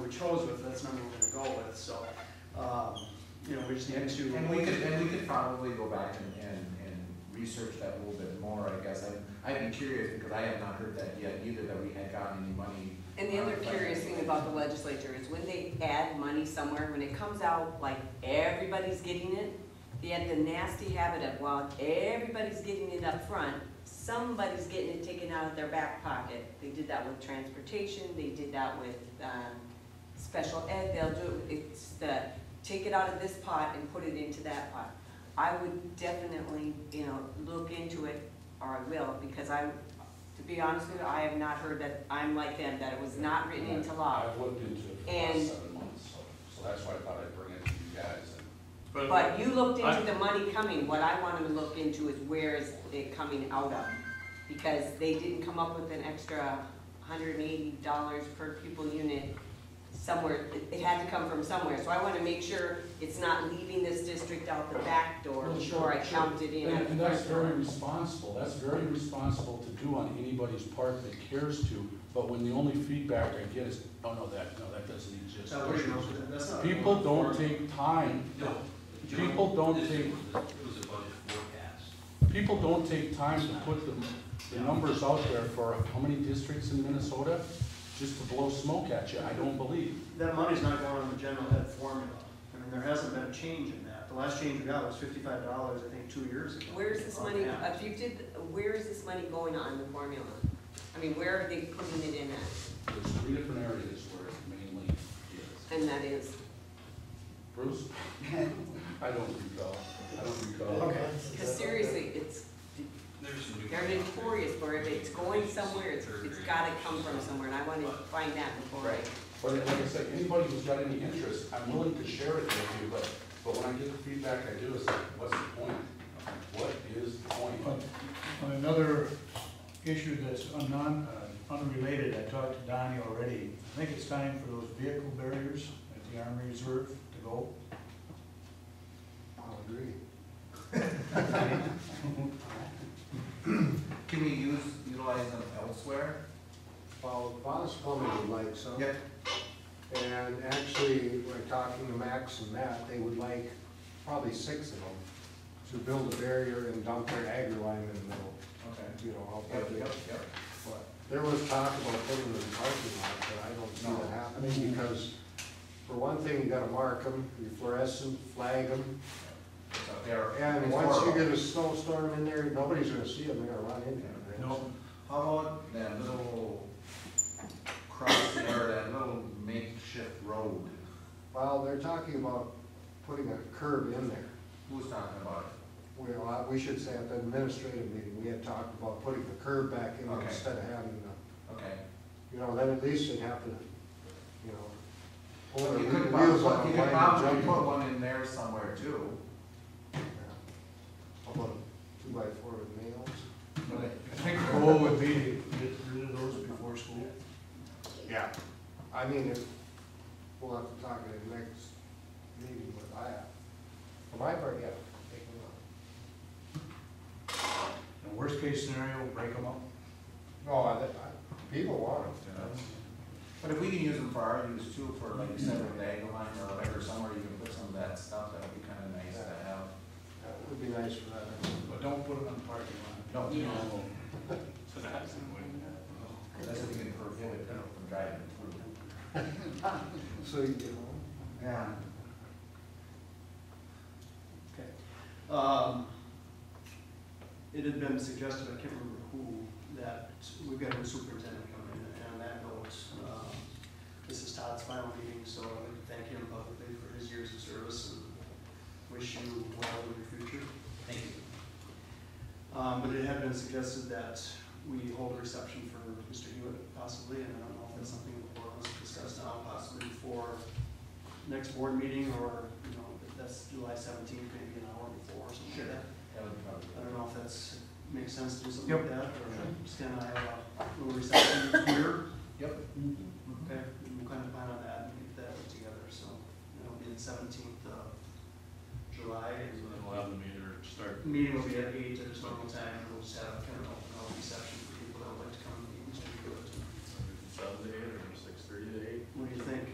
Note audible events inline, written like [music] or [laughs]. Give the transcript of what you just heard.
pros with, that's the number we're gonna go with, so, um, you know, we just need to. And we could, and we could probably go back and, and, and research that a little bit more, I guess. I'd, I'd be curious, because I have not heard that yet either, that we had gotten any money. And the other curious thing about the legislature is when they add money somewhere, when it comes out like everybody's getting it, they had the nasty habit of, well, everybody's getting it up front, somebody's getting it taken out of their back pocket. They did that with transportation, they did that with, um, special ed, they'll do, it's the, take it out of this pot and put it into that pot. I would definitely, you know, look into it, or I will, because I, to be honest with you, I have not heard that, I'm like them, that it was not written into law. I've looked into it for the And- last seven months, so, so that's why I thought I'd bring it to you guys. and- But you looked into the money coming, what I wanted to look into is where is it coming out of? Because they didn't come up with an extra hundred and eighty dollars per pupil unit somewhere, It- it had to come from somewhere. So I wanna make sure it's not leaving this district out the back door Well, sure, before I sure. count it in And- at the And that's front very door. responsible, that's very responsible to do on anybody's part that cares to, but when the only feedback I get is, oh, no, that, no, that doesn't exist. That was your motion, that's not. People don't take time, No. People don't This think- was a- It was a budget forecast. people don't take time to put the, the numbers out there for how many districts in Minnesota, just to blow smoke at you, I don't believe. That money's not going on the general ed formula. I mean, there hasn't been a change in that. The last change we got was fifty-five dollars, I think, two years ago. Where is this On money, that. if you did, where is this money going on the formula? I mean, where are they putting it in at? There's three different areas where it mainly is. And that is, Bruce? [laughs] I don't recall, I don't recall. Okay. cause seriously, it's There's some new. They're notorious for if it's going somewhere, it's, it's gotta come from somewhere, and I wanna find that before. I- Right, but like I said, anybody who's got any interest, I'm willing to share it with you, but, but when I get the feedback I do, it's like, what's the point? What is the point? On another issue that's un- non, uh, unrelated, I talked to Donnie already, I think it's time for those vehicle barriers at the Army Reserve to go. I'll agree. Can we use, utilize them elsewhere? Well, Boss Plumbing would like some, Yep. and actually, we're talking to Max and Matt, they would like probably six of them to build a barrier and dump their agri lime in the middle, Okay. you know, out Yep, there. yep, yep. But There was talk about putting them in the parking lot, but I don't see that happening, because for one thing, you gotta mark them, you fluorescent, flag them, So they are. and it's once you horrible. get a snowstorm in there, nobody's gonna see them, they're gonna run into them. No, How about that little cross there, that little makeshift road? Well, they're talking about putting a curb in there. Who's talking about it? Well, I- we should say at the administrative meeting, we had talked about putting the curb back in Okay. instead of having, the- Okay. you know, then at least they'd have to, you know. You hold their could probably, you wheels on a line could and probably jump put them. one in there somewhere too. Yeah. How About a two by four with nails. but I I think the goal would be to get rid of those before school. Yeah. I mean, if, we'll have to talk at the next meeting, but I, for my part, yeah, take them out. And worst case scenario, break them up. No, I, I- people want them. But if we can use them for our use too, for like you said, with the angle line or whatever, somewhere you can put some of that stuff, that would be kinda nice to have. That would be nice for that. But don't put it on the parking lot. No, you know, So that's the way. that's if you can prevent it from driving through. So you get home. Yeah. Okay. Um, It had been suggested, I can't remember who, that we've got a new superintendent coming in, and on that note, um, this is Todd's final meeting, so I'd like to thank him publicly for his years of service and wish you well in your future. Thank you. Um, but it had been suggested that we hold a reception for Mr. Hewitt possibly, and I don't know if that's something the board wants to discuss now, possibly before next board meeting or, you know, if that's July seventeenth, maybe an hour before or something like that. That would probably. I don't know if that's, makes sense to do something like that, or just kind of have a little reception here. Yep. Okay, we'll kind of plan on that and get that together, so it'll be the seventeenth of July. and It'll have the meter start Meeting will be at eight at its normal time, and we'll just have kind of a